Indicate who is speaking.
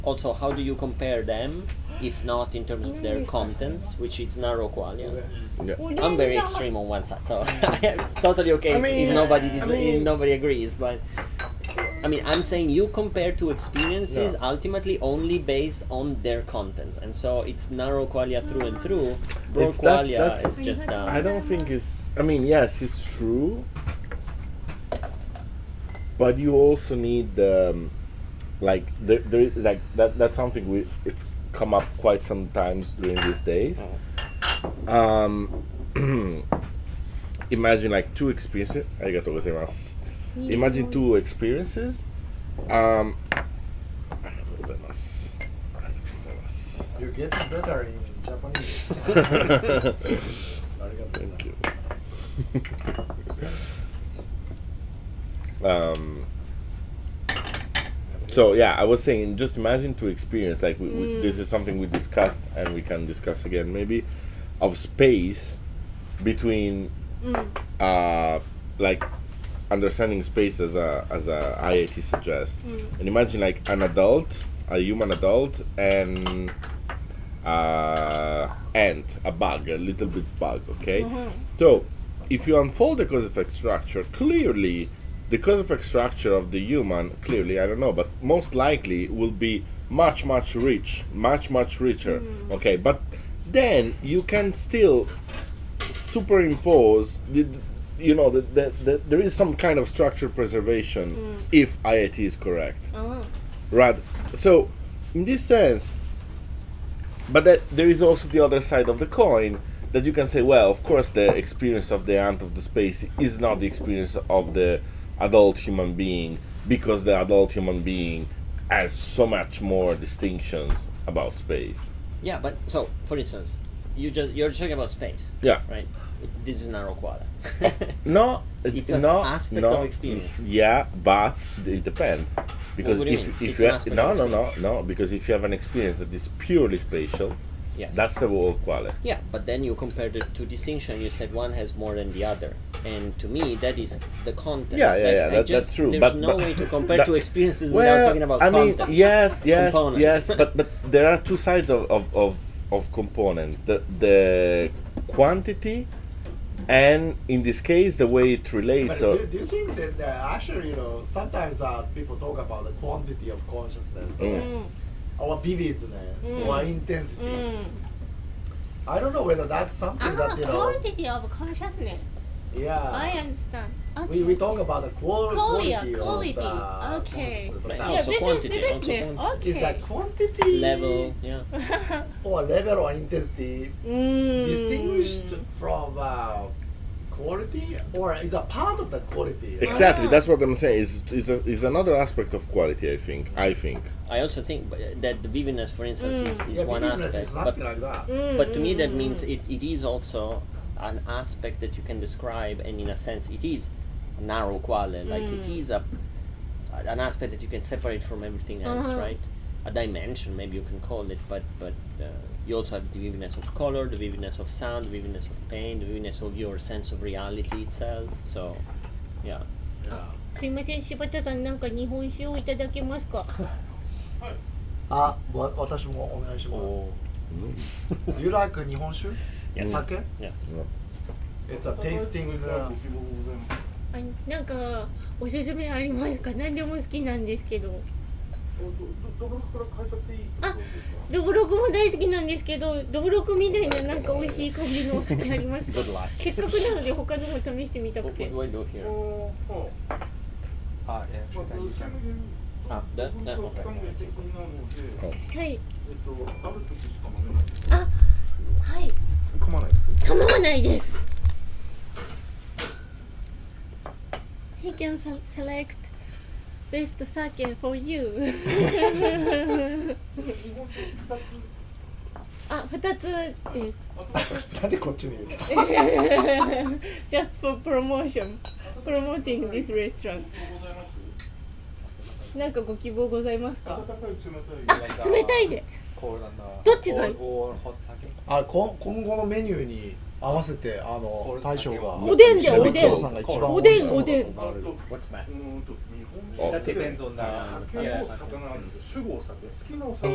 Speaker 1: Also, how do you compare them, if not in terms of their contents, which is narrow qualia?
Speaker 2: Yeah.
Speaker 1: I'm very extreme on one side, so it's totally okay
Speaker 3: I
Speaker 1: if-
Speaker 3: mean,
Speaker 1: if nobody dis-
Speaker 3: I mean-
Speaker 1: if nobody agrees. But I mean, I'm saying you compare two experiences ultimately only based on their contents, and so it's narrow qualia through and through. Broad
Speaker 2: It's- that's-
Speaker 1: qualia
Speaker 2: that's-
Speaker 1: is just uh,
Speaker 2: I don't think it's. I mean, yes, it's true, but you also need um, like there, there is- like that. That's something we it's come up quite sometimes during these days. Um, imagine like two experiences. ありがとうございます。Imagine two experiences. Um, ありがとうございます。ありがとうございます。
Speaker 4: You're getting better in Japanese.
Speaker 2: Thank you. um, so yeah, I was saying, just imagine to experience like we, we, this is something we discussed and we can discuss again maybe of space between uh, like understanding space as a as a IAT suggests, and imagine like an adult, a human adult, and uh, ant, a bug, a little bit bug, okay? So, if you unfold the cause effect structure, clearly the cause effect structure of the human, clearly, I don't know, but most likely will be much, much rich, much, much richer, okay? But then you can still superimpose the, you know that the, the, there is some kind of structure preservation if IIT is correct right so in this sense but that there is also the other side of the coin that you can say well of course the experience of the ant of the space is not the experience of the adult human being because the adult human being has so much more distinctions about space
Speaker 1: yeah. But so, for instance, you just you're talking about space,
Speaker 2: yeah
Speaker 1: right? This is narrow qualia.
Speaker 2: No,
Speaker 1: It's
Speaker 2: uh,
Speaker 1: an
Speaker 2: no,
Speaker 1: aspect
Speaker 2: no,
Speaker 1: of experience.
Speaker 2: Yeah, but it depends because
Speaker 1: what do
Speaker 2: if
Speaker 1: you mean?
Speaker 2: if
Speaker 1: It's
Speaker 2: you
Speaker 1: an
Speaker 2: have,
Speaker 1: aspect
Speaker 2: no
Speaker 1: of
Speaker 2: no no no because if you have an experience that is purely spatial,
Speaker 1: yes.
Speaker 2: that's the whole quality.
Speaker 1: Yeah, but then you compare the two distinction. You said one has more than the other, and to me, that is the content.
Speaker 2: Yeah, yeah,
Speaker 1: Like,
Speaker 2: yeah,
Speaker 1: I
Speaker 2: that-
Speaker 1: just-
Speaker 2: that's true,
Speaker 1: There's
Speaker 2: but-
Speaker 1: no
Speaker 2: but-
Speaker 1: way to compare
Speaker 2: that-
Speaker 1: two experiences without
Speaker 2: well,
Speaker 1: talking about
Speaker 2: I mean,
Speaker 1: content.
Speaker 2: yes, yes,
Speaker 1: components.
Speaker 2: yes, but but there are two sides of of of, of component the the quantity, and in this case the way it
Speaker 4: But
Speaker 2: relates. or,
Speaker 4: do, do you think that uh, actually, you know, sometimes uh, people talk about the quantity of consciousness,
Speaker 2: Mm.
Speaker 4: or vividness,
Speaker 5: Mm.
Speaker 4: or intensity. I don't know whether that's something that, you know,
Speaker 5: Ah, quality of consciousness. I
Speaker 4: yeah.
Speaker 5: understand. Okay.
Speaker 4: We, we talk about the qual-
Speaker 5: Qualia, quality.
Speaker 4: quality of the
Speaker 5: Okay.
Speaker 4: consciousness, but
Speaker 1: But
Speaker 4: now
Speaker 5: yeah,
Speaker 1: also
Speaker 5: this
Speaker 1: quantity,
Speaker 5: is
Speaker 1: also
Speaker 5: vividness.
Speaker 1: quantity.
Speaker 4: is that
Speaker 5: Okay.
Speaker 4: quantity
Speaker 1: level. Yeah,
Speaker 4: or level or intensity
Speaker 3: Mm.
Speaker 4: distinguished from uh, quality or is a part of the quality?
Speaker 5: Ah,
Speaker 2: exactly, that's what I'm saying. Is is a- is another aspect of quality. I think. I think.
Speaker 1: I also think uh, that the vividness, for instance, is, is
Speaker 4: Mm, Yeah,
Speaker 1: one
Speaker 4: vividness
Speaker 1: aspect.
Speaker 4: is
Speaker 1: But,
Speaker 4: something like that.
Speaker 1: but to me, that means it, it is also an aspect that you can describe, and in a sense, it is narrow qualia. Like it is a an aspect that you can separate from everything else,
Speaker 5: Uh-huh.
Speaker 1: right? A dimension, maybe you can call it, but but uh, you also have the vividness of color, the vividness of sound, the vividness of pain, the vividness of your sense of reality itself. So, yeah.
Speaker 5: すいません、柴田さん、なんか日本酒をいただけますか。
Speaker 4: あ、わ私もお願いします。Do you like 日本酒
Speaker 1: Yes.
Speaker 4: 酒
Speaker 1: Mm. Yes.
Speaker 4: It's a tasting、uh,
Speaker 5: あなんかおすすめありますか。何でも好きなんですけど。あ、どぶろくも大好きなんですけど、どぶろくみたいななんか美味しい感じのお酒ありますか
Speaker 1: Good luck.。
Speaker 5: せっかくなので他のも試してみたく
Speaker 1: What, what
Speaker 5: て。
Speaker 1: do I do here?
Speaker 6: Ah, yeah, that you can.
Speaker 1: Ah, that, that okay.
Speaker 5: はい。あ、はい。構わないです。He can se- select best sake for you. あ、二つで
Speaker 4: なんでこっちにいる
Speaker 5: す。Just for promotion, promoting this restaurant. なんかご希望ございますか。あ、冷たいで。
Speaker 6: Cold and uh,
Speaker 5: Don't you
Speaker 6: or,
Speaker 5: know?
Speaker 6: or hot sake.
Speaker 4: あこ今後のメニューに合わせてあの大将が
Speaker 5: おでんで
Speaker 2: おでん
Speaker 4: おさんが一番
Speaker 5: おでんおでん
Speaker 4: 怒られる
Speaker 3: What's math?
Speaker 2: Oh.
Speaker 3: That depends on the.
Speaker 6: 酒
Speaker 3: Yeah.
Speaker 6: も魚なんですよ。酒豪酒。好きなお酒。